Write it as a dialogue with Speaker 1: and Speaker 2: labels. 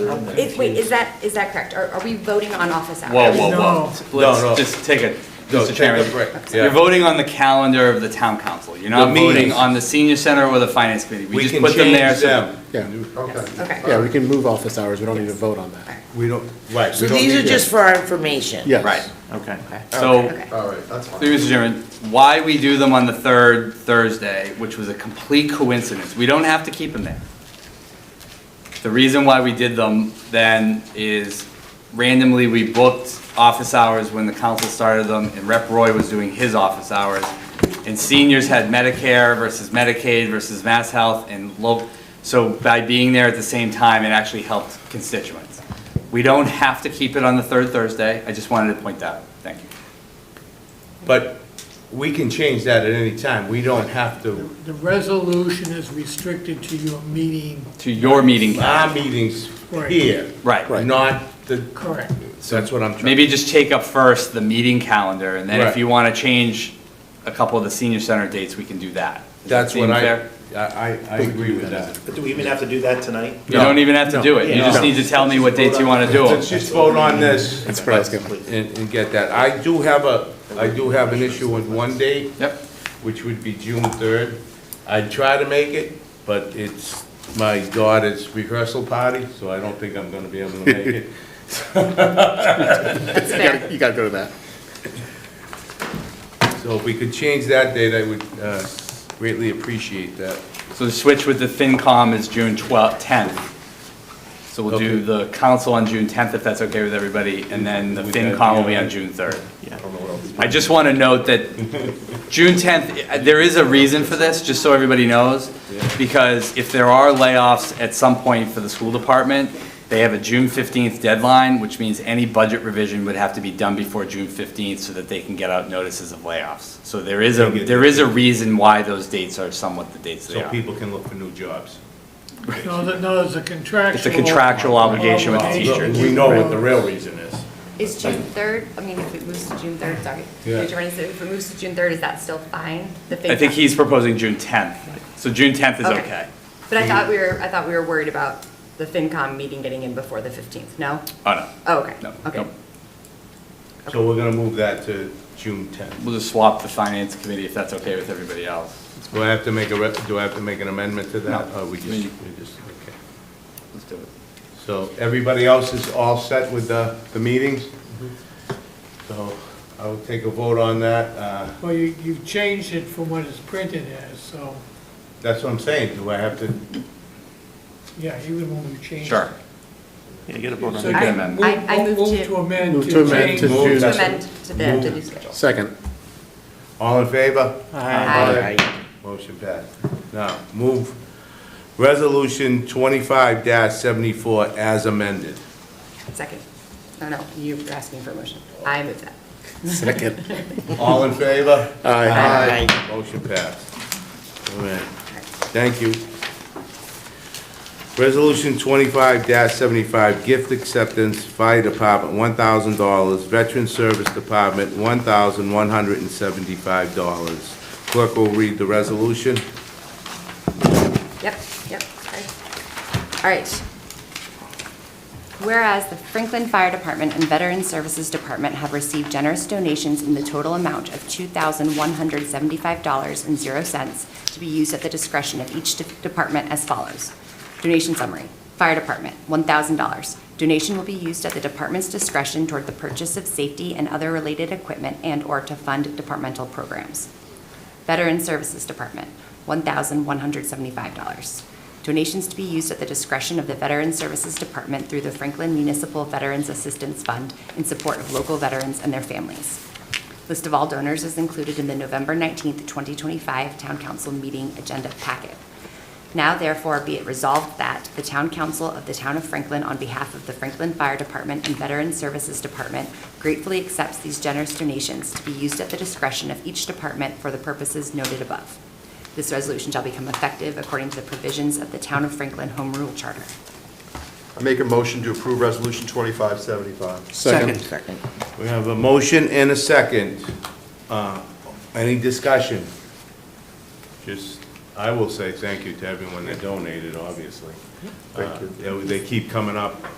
Speaker 1: are in there.
Speaker 2: Is, wait, is that, is that correct? Are, are we voting on office hours?
Speaker 3: Whoa, whoa,
Speaker 1: No.
Speaker 3: whoa.
Speaker 1: No, no.
Speaker 3: Let's just take a,
Speaker 1: No, take
Speaker 3: Mr.
Speaker 1: a
Speaker 3: Chairman.
Speaker 1: break, yeah.
Speaker 3: You're voting on the calendar of the town council. You're
Speaker 1: The
Speaker 3: not
Speaker 1: meetings.
Speaker 3: voting on the senior center or the finance committee. We
Speaker 1: We
Speaker 3: just
Speaker 1: can
Speaker 3: put them there.
Speaker 1: change
Speaker 3: so-
Speaker 1: them.
Speaker 4: Yeah,
Speaker 1: Okay.
Speaker 2: Okay.
Speaker 3: uh,
Speaker 4: yeah, we can move office hours, we don't need to vote on that.
Speaker 1: We don't, right. we
Speaker 5: So
Speaker 1: don't
Speaker 5: these are
Speaker 1: need
Speaker 5: just
Speaker 1: it.
Speaker 5: for our information?
Speaker 4: Yes.
Speaker 3: Right.
Speaker 5: Okay.
Speaker 3: So,
Speaker 2: Okay.
Speaker 1: All right, that's fine.
Speaker 3: through you, Mr. Chairman, why we do them on the third Thursday, which was a complete coincidence, we don't have to keep them there. The reason why we did them then is randomly, we booked office hours when the council started them, and Rep. Roy was doing his office hours. And seniors had Medicare versus Medicaid versus Mass Health and local, so by being there at the same time, it actually helped constituents. We don't have to keep it on the third Thursday, I just wanted to point that out, thank you.
Speaker 1: But we can change that at any time. We don't have to,
Speaker 6: The resolution is restricted to your meeting,
Speaker 3: To your meeting
Speaker 1: our
Speaker 3: calendar.
Speaker 1: meetings
Speaker 6: Right.
Speaker 1: here.
Speaker 3: Right. Right.
Speaker 1: Not the,
Speaker 6: correct?
Speaker 1: that's what I'm trying.
Speaker 3: Maybe just take up first the meeting calendar, and then
Speaker 1: Right.
Speaker 3: if you want to change a couple of the senior center dates, we can do that. Does that
Speaker 1: That's what
Speaker 3: seem
Speaker 1: I,
Speaker 3: fair?
Speaker 1: I, I I agree with that.
Speaker 7: But do we even have to do that tonight?
Speaker 3: You don't even have to do it, you
Speaker 7: Yeah.
Speaker 3: just
Speaker 7: No.
Speaker 3: need to tell me what dates you want to do
Speaker 1: Let's
Speaker 3: them.
Speaker 1: just vote on this.
Speaker 4: That's what I was gonna-
Speaker 1: And, and get that. I do have a, I do have an issue with one date.
Speaker 3: Yep,
Speaker 1: which would be June 3rd. I'd try to make it, but it's my daughter's rehearsal party, so I don't think I'm going to be able to make it.
Speaker 2: That's
Speaker 4: You gotta-
Speaker 2: fair.
Speaker 4: You gotta go to that.
Speaker 1: So if we could change that date, I would uh, greatly appreciate that.
Speaker 3: so the switch with the FinCom is June 12th, 10th. So we'll
Speaker 1: Okay.
Speaker 3: do the council on June 10th, if that's okay with everybody, and then the
Speaker 1: With that,
Speaker 3: FinCom will be
Speaker 1: yeah.
Speaker 3: on June 3rd.
Speaker 1: I don't know what else.
Speaker 3: I just want to note that June 10th, uh, there is a reason for this, just so everybody knows, because if there are layoffs at some point for the school department, they have a June 15th deadline, which means any budget revision would have to be done before June 15th so that they can get out notices of layoffs. So there is a, there is a reason why those dates are somewhat the dates they
Speaker 1: So
Speaker 3: are.
Speaker 1: people can look for new jobs.
Speaker 6: No, that, no, it's a contractual.
Speaker 3: It's a contractual obligation with teachers.
Speaker 1: We know what the real reason is.
Speaker 2: Is June third, I mean, if it moves to June third, sorry.
Speaker 1: Yeah.
Speaker 2: Mr. Brennan, so If it moves to June third, is that still fine? The
Speaker 3: I think
Speaker 2: FinCom?
Speaker 3: he's proposing June 10th, so June 10th is
Speaker 2: Okay.
Speaker 3: okay.
Speaker 2: But I thought we were, I thought we were worried about the FinCom meeting getting in before the fifteenth, no?
Speaker 3: Oh, no.
Speaker 2: Oh, okay,
Speaker 3: No,
Speaker 2: okay.
Speaker 3: no.
Speaker 1: So we're going to move that to June 10th.
Speaker 3: We'll just swap the finance committee if that's okay with everybody else.
Speaker 1: Do I have to make a, rep- do I have to make an amendment to that?
Speaker 3: No.
Speaker 1: Or we just,
Speaker 3: I mean-
Speaker 1: we just, okay.
Speaker 3: Let's do it.
Speaker 1: So everybody else is all set with the, the meetings? So I will take a vote on that. Uh,
Speaker 6: Well, you, you've changed it from what it's printed as, so,
Speaker 1: That's what I'm saying, do I have to?
Speaker 6: yeah, even when we change.
Speaker 3: Sure.
Speaker 7: Yeah, you gotta vote on
Speaker 6: So
Speaker 3: You
Speaker 7: it.
Speaker 3: can
Speaker 6: you
Speaker 3: amend.
Speaker 6: move-
Speaker 2: I- I moved
Speaker 6: move- move
Speaker 2: to-
Speaker 6: to amend
Speaker 4: Move
Speaker 6: to
Speaker 4: to amend
Speaker 6: change.
Speaker 4: to
Speaker 1: Move
Speaker 4: June.
Speaker 2: To
Speaker 1: that.
Speaker 2: amend to the, to new schedule.
Speaker 4: Second,
Speaker 1: All in favor?
Speaker 2: Aye.
Speaker 1: Motion passed. Now, move resolution twenty-five seventy-four as amended.
Speaker 2: Second. No, no, you were asking for a motion. I move that.
Speaker 4: second.
Speaker 1: All in favor?
Speaker 4: Aye.
Speaker 1: Aye. Motion passed. All right, thank you. Resolution twenty-five seventy-five, gift acceptance, fire department, one thousand dollars, veteran service department, one thousand one hundred and seventy-five dollars. Clerk will read the resolution.
Speaker 2: Yep, yep, sorry. All right. Whereas the Franklin Fire Department and Veteran Services Department have received generous donations in the total amount of $2,175.00 to be used at the discretion of each de- department as follows. Donation summary, Fire Department, $1,000. Donation will be used at the department's discretion toward the purchase of safety and other related equipment and/or to fund departmental programs. Veteran Services Department, $1,175. Donations to be used at the discretion of the Veteran Services Department through the Franklin Municipal Veterans Assistance Fund in support of local veterans and their families. List of all donors is included in the November 19th, 2025 Town Council Meeting Agenda Packet. Now therefore be it resolved that the Town Council of the Town of Franklin, on behalf of the Franklin Fire Department and Veteran Services Department, gratefully accepts these generous donations to be used at the discretion of each department for the purposes noted above. This resolution shall become effective according to the provisions of the Town of Franklin Home Rule Charter.
Speaker 8: I make a motion to approve Resolution 2575.
Speaker 4: Second,
Speaker 5: Second.
Speaker 1: We have a motion and a second. Uh, Any discussion? Just I will say thank you to everyone that donated, obviously.
Speaker 8: Thank you.
Speaker 1: Uh, They they keep coming up